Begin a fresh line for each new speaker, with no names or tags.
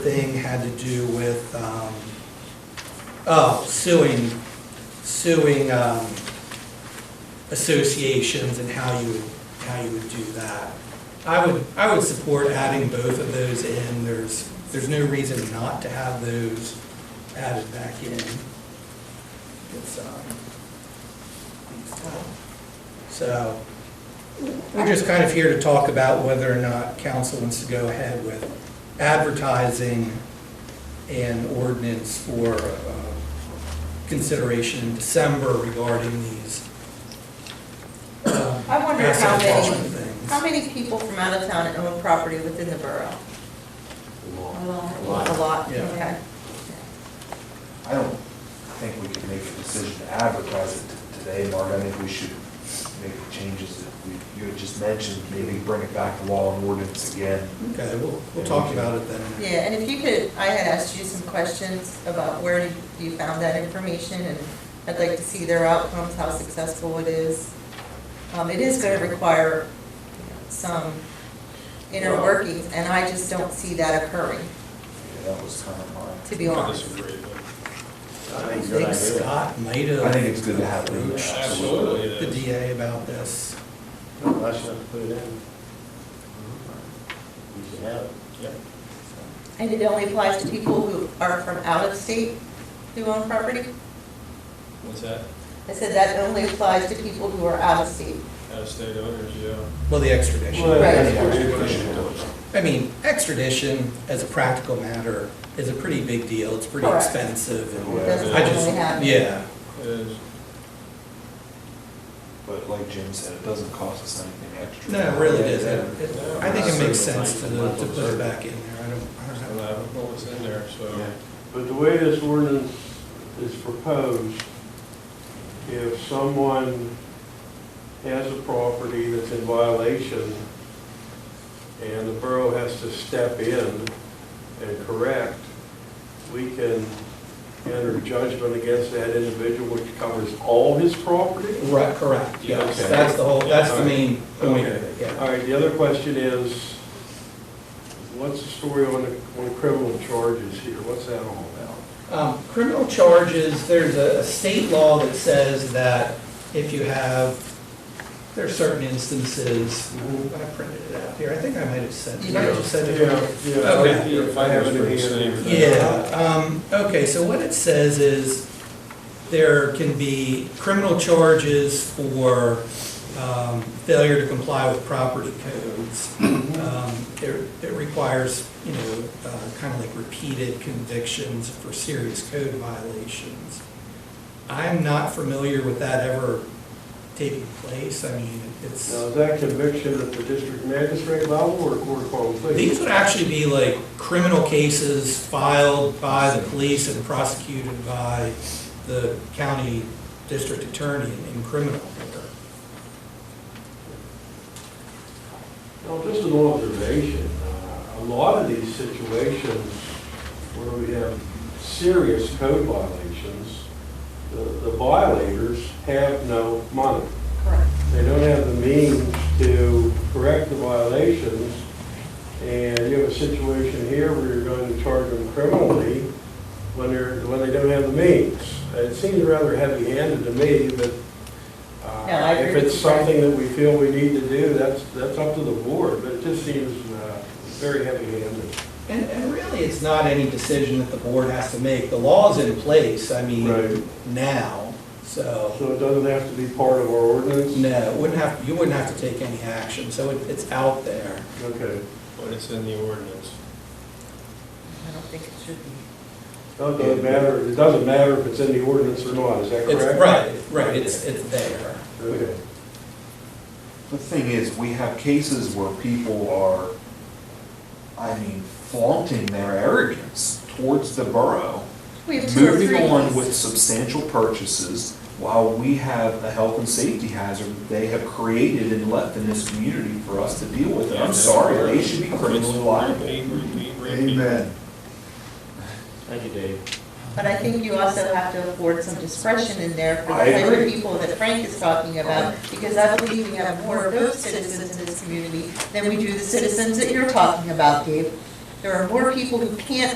thing had to do with, um, oh, suing, suing um, associations and how you, how you would do that. I would, I would support adding both of those in. There's, there's no reason not to have those added back in. It's, um, it's tough. So, we're just kind of here to talk about whether or not council wants to go ahead with advertising an ordinance for uh, consideration in December regarding these. um,
I wonder how
asset
many-
enforcement things.
How many people from out of town own property within the borough? A lot. A lot,
Yeah.
okay.
I don't think we can make a decision to advertise it t- today, Mark. I think we should make the changes that we- you had just mentioned, maybe bring it back to law and ordinance again.
Okay, we'll, we'll talk about it then.
Yeah, and if you could, I had asked you some questions about where you found that information, and I'd like to see their outcomes, how successful it is. Um, it is gonna require some inner
Well-
workings, and I just don't see that occurring,
Yeah, that was kind of
to
my,
be
I
honest.
disagree, but
I think Scott might have.
I think it's good to have it in there.
approached
absolutely it
The
is.
DA about this.
Unless you have to put it in. You should have it.
Yep.
And it only applies to people who are from out of state who own property?
What's that?
I said that only applies to people who are out of state.
Out of state owners, yeah.
Well, the extradition.
Well,
Right.
I mean, extradition, as a practical matter, is a pretty big deal. It's pretty
Correct.
expensive. and
It
Yeah.
doesn't
I just,
really happen.
yeah,
It is.
But like Jim said, it doesn't cost us anything extra.
no, it really
Yeah,
doesn't. It-
Yeah.
I think it makes sense to, to put it back in there. I don't, I don't know.
Allowable was in there, so.
But the way this ordinance is proposed, if someone has a property that's in violation and the borough has to step in and correct, we can enter judgment against that individual, which covers all his property?
Right, correct, yeah.
Okay.
That's the whole, that's the main point of it,
Okay.
yeah.
All right, the other question is, what's the story on the, on criminal charges here? What's that all about?
Um, Criminal charges, there's a a state law that says that if you have, there are certain instances,
Mhm.
I printed it out here, I think I might have said, did I
Yeah.
just said it?
Okay.
If I have it in hand.
Yeah, um, okay, so what it says is there can be criminal charges for, um, failure to comply with property codes. Um, it, it requires, you know, uh, kind of like repeated convictions for serious code violations. I'm not familiar with that ever taking place, I mean, it's.
Now, is that conviction at the district magistrate level or court of public pleas?
These would actually be like criminal cases filed by the police and prosecuted by the county district attorney in criminal court.
Now, just an observation, uh, a lot of these situations where we have serious code violations, the the violators have no money.
Correct.
They don't have the means to correct the violations, and you have a situation here where you're going to charge them criminally when they're, when they don't have the means. It seems rather heavy-handed to me, but uh,
No, I agree
if it's
with you, Frank.
something that we feel we need to do, that's, that's up to the board, but it just seems uh, very heavy-handed.
And, and really, it's not any decision that the board has to make. The law's in place, I mean,
Right.
now, so,
So it doesn't have to be part of our ordinance?
no, it wouldn't have, you wouldn't have to take any action, so it, it's out there.
Okay.
But it's in the ordinance.
I don't think it should be.
It doesn't matter, it doesn't matter if it's in the ordinance or not, is that
It's,
correct?
right, right, it's, it's there.
Okay.
The thing is, we have cases where people are, I mean, flaunting their arrogance towards the borough.
We have two or
Moving
three
on
these.
with substantial purchases while we have a health and safety hazard they have created and left in this community for us to deal with. I'm sorry, they should be criminally liable.
Repeat, repeat, repeat.
Amen.
Thank you, Dave.
But I think you also have to afford some discretion in there for
I
the type of
agree.
people that Frank is talking about, because I believe we have more of those citizens in this community than we do the citizens that you're talking about, Dave. There are more people who can't